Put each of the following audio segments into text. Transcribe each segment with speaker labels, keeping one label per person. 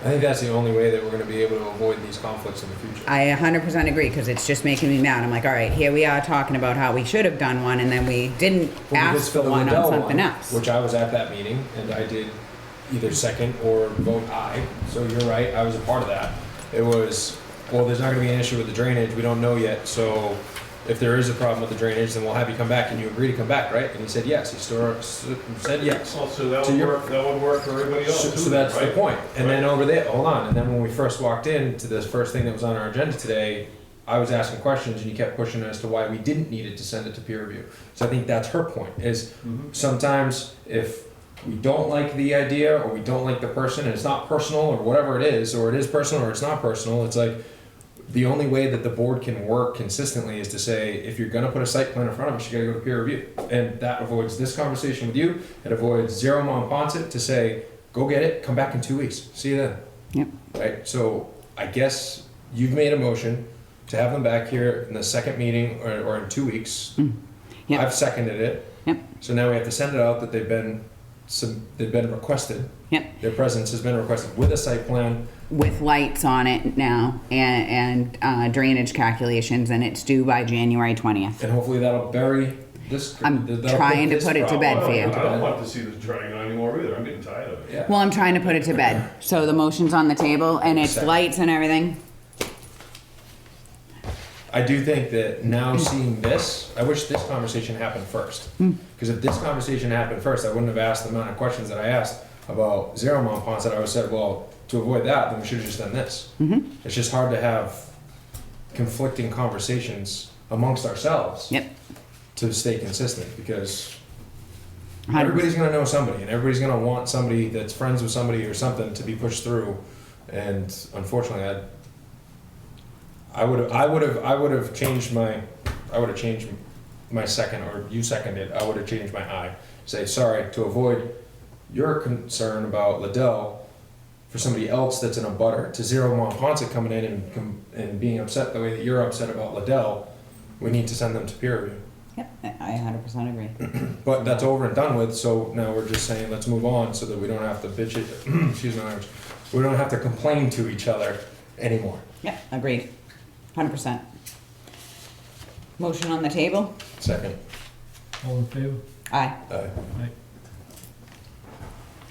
Speaker 1: I think that's the only way that we're going to be able to avoid these conflicts in the future.
Speaker 2: I 100% agree because it's just making me mad. I'm like, all right, here we are talking about how we should have done one and then we didn't
Speaker 1: Well, we
Speaker 2: ask
Speaker 1: just
Speaker 2: for
Speaker 1: did the
Speaker 2: one on
Speaker 1: Lindell
Speaker 2: something
Speaker 1: one,
Speaker 2: else.
Speaker 1: Which I was at that meeting and I did either second or vote aye. So you're right, I was a part of that. It was, well, there's not gonna be an issue with the drainage, we don't know yet, so if there is a problem with the drainage, then we'll have you come back and you agree to come back, right? And he said yes, he still s- said yes.
Speaker 3: Well, so that
Speaker 1: To
Speaker 3: would
Speaker 1: your-
Speaker 3: work, that would work for everybody
Speaker 1: So
Speaker 3: else
Speaker 1: so
Speaker 3: too,
Speaker 1: that's the
Speaker 3: right?
Speaker 1: point. And then over there, hold on, and then when we first walked in to this first thing that was on our agenda today, I was asking questions and you kept pushing as to why we didn't need it to send it to peer review. So I think that's her point, is
Speaker 3: Mm-hmm.
Speaker 1: sometimes if we don't like the idea or we don't like the person and it's not personal or whatever it is, or it is personal or it's not personal, it's like, the only way that the board can work consistently is to say, if you're gonna put a site plan in front of us, you gotta go to peer review. And that avoids this conversation with you, it avoids Zero Monpont to say, go get it, come back in two weeks, see you then.
Speaker 2: Yep.
Speaker 1: Right, so I guess you've made a motion to have them back here in the second meeting or, or in two weeks.
Speaker 2: Yep.
Speaker 1: I've seconded it.
Speaker 2: Yep.
Speaker 1: So now we have to send it out that they've been, sub- they've been requested,
Speaker 2: Yep.
Speaker 1: their presence has been requested with a site plan.
Speaker 2: With lights on it now and, and uh, drainage calculations and it's due by January 20th.
Speaker 1: And hopefully that'll bury this.
Speaker 2: I'm
Speaker 1: that'll
Speaker 2: trying to
Speaker 1: this
Speaker 2: put it to bed
Speaker 3: I
Speaker 1: problem-
Speaker 2: for you.
Speaker 3: don't- I don't want to see this dragging on anymore either, I'm getting tired of it.
Speaker 1: Yeah.
Speaker 2: Well, I'm trying to put it to bed. So the motion's on the table and it's
Speaker 1: Second.
Speaker 2: lights and everything.
Speaker 1: I do think that
Speaker 2: Mm.
Speaker 1: now seeing this, I wish this conversation happened first. Because if this conversation happened first, I wouldn't have asked the amount of questions that I asked about zero mont ponds that I would have said, well, to avoid that, then we should have just done this.
Speaker 2: Mm-hmm.
Speaker 1: It's just hard to have conflicting conversations amongst ourselves
Speaker 2: Yep.
Speaker 1: to stay consistent because
Speaker 2: Hundred-
Speaker 1: everybody's going to know somebody and everybody's going to want somebody that's friends with somebody or something to be pushed through and unfortunately i i would have i would have i would have changed my i would have changed my second or you seconded i would have changed my eye say sorry to avoid your concern about liddell for somebody else that's in a butter to zero Monponsa coming in and, com- and being upset the way that you're upset about liddell we need to send them to peer review
Speaker 2: Yep. I I 100% agree.
Speaker 1: but that's over and done with, so now we're just saying, let's move on, so that we don't have to bitch it, excuse my language, we don't have to complain to each other anymore.
Speaker 2: Yep. Agreed. 100%. Motion on the table.
Speaker 1: Second,
Speaker 4: All in favor?
Speaker 2: Aye.
Speaker 1: uh,
Speaker 4: Aye.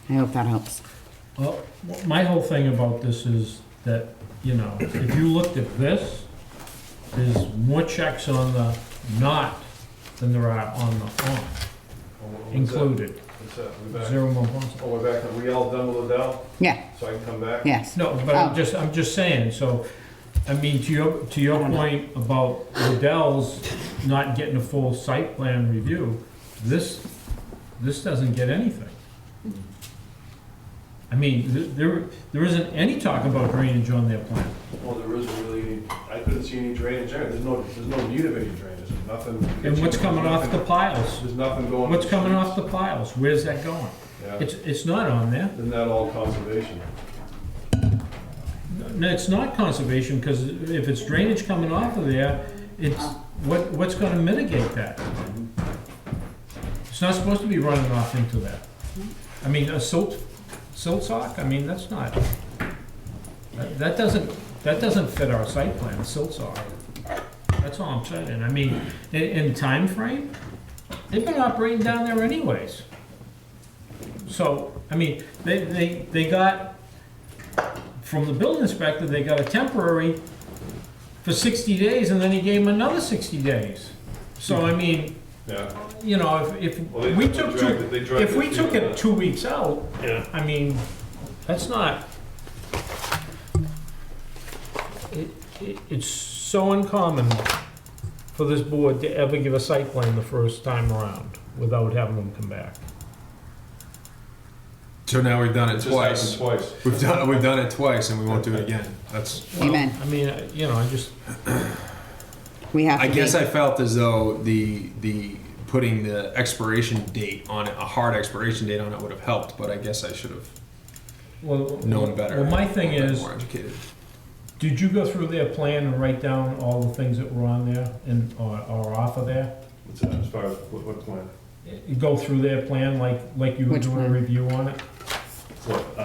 Speaker 2: I hope that helps.
Speaker 4: Well, my whole thing about this is that, you know, if you looked at this, there's more checks on the not than there are on the on,
Speaker 3: Oh, what's that?
Speaker 4: included.
Speaker 3: What's that? We back?
Speaker 4: Zero more bonds.
Speaker 3: Oh, we're back, are we all done with Liddell,
Speaker 2: Yeah.
Speaker 3: so I can come back?
Speaker 2: Yes.
Speaker 4: No, but I'm
Speaker 2: Oh.
Speaker 4: just, I'm just saying, so, I mean, to your, to
Speaker 2: I
Speaker 4: your
Speaker 2: don't know.
Speaker 4: point about Liddell's not getting a full site plan review, this, this doesn't get anything. I mean, th- there, there isn't any talk about drainage on their plan.
Speaker 3: Well, Oh, there isn't really any, I couldn't see any drainage there, there's no, there's no need of any drainage, there's nothing.
Speaker 4: And what's coming off the piles?
Speaker 3: There's nothing going.
Speaker 4: What's coming off the piles? Where's that going?
Speaker 3: Yeah,
Speaker 4: It's, it's not on there.
Speaker 3: isn't that all conservation?
Speaker 4: No, it's not conservation, because if it's drainage coming off of there, it's, what, what's gonna mitigate that? It's not supposed to be running off into that. I mean, a silt, silt sock, I mean, that's not, that that doesn't, that doesn't fit our site plan, a silt sock. That's all I'm saying. I mean, in, in time frame, they've been operating down there anyways. So, I mean, they, they, they got from the building inspector, they got a temporary for sixty days, and then he gave them another sixty days. So, I mean,
Speaker 3: Yeah.
Speaker 4: you know, if, if
Speaker 3: Well, they-
Speaker 4: we
Speaker 3: they
Speaker 4: took
Speaker 3: dragged it-
Speaker 4: two,
Speaker 3: they dragged
Speaker 4: if we
Speaker 3: it
Speaker 4: took
Speaker 3: through
Speaker 4: it
Speaker 3: the- uh,
Speaker 4: two weeks out,
Speaker 3: Yeah.
Speaker 4: I mean, that's not. It, it, it's so uncommon for this board to ever give a site plan the first time around without having them come back.
Speaker 1: so now we've done it
Speaker 3: It just happened
Speaker 1: twice,
Speaker 3: twice.
Speaker 1: we've done, we've done it twice and we won't do it again, that's,
Speaker 4: Well,
Speaker 2: Amen.
Speaker 4: I mean, I- you know, I just,
Speaker 2: We have to
Speaker 1: I
Speaker 2: be-
Speaker 1: guess I felt as though the, the, putting the expiration date on it, a hard expiration date on it would have helped, but I guess I should have
Speaker 4: well.
Speaker 1: known better.
Speaker 4: Well, my thing
Speaker 1: been
Speaker 4: is,
Speaker 1: More educated.
Speaker 4: Did you go through their plan and write down all the things that were on there and, or, or off of there?
Speaker 3: What's that, uh, as far as, what, what plan?
Speaker 4: You Go through their plan like, like you were
Speaker 2: Which
Speaker 4: doing a
Speaker 2: plan?
Speaker 4: review on it?
Speaker 3: What,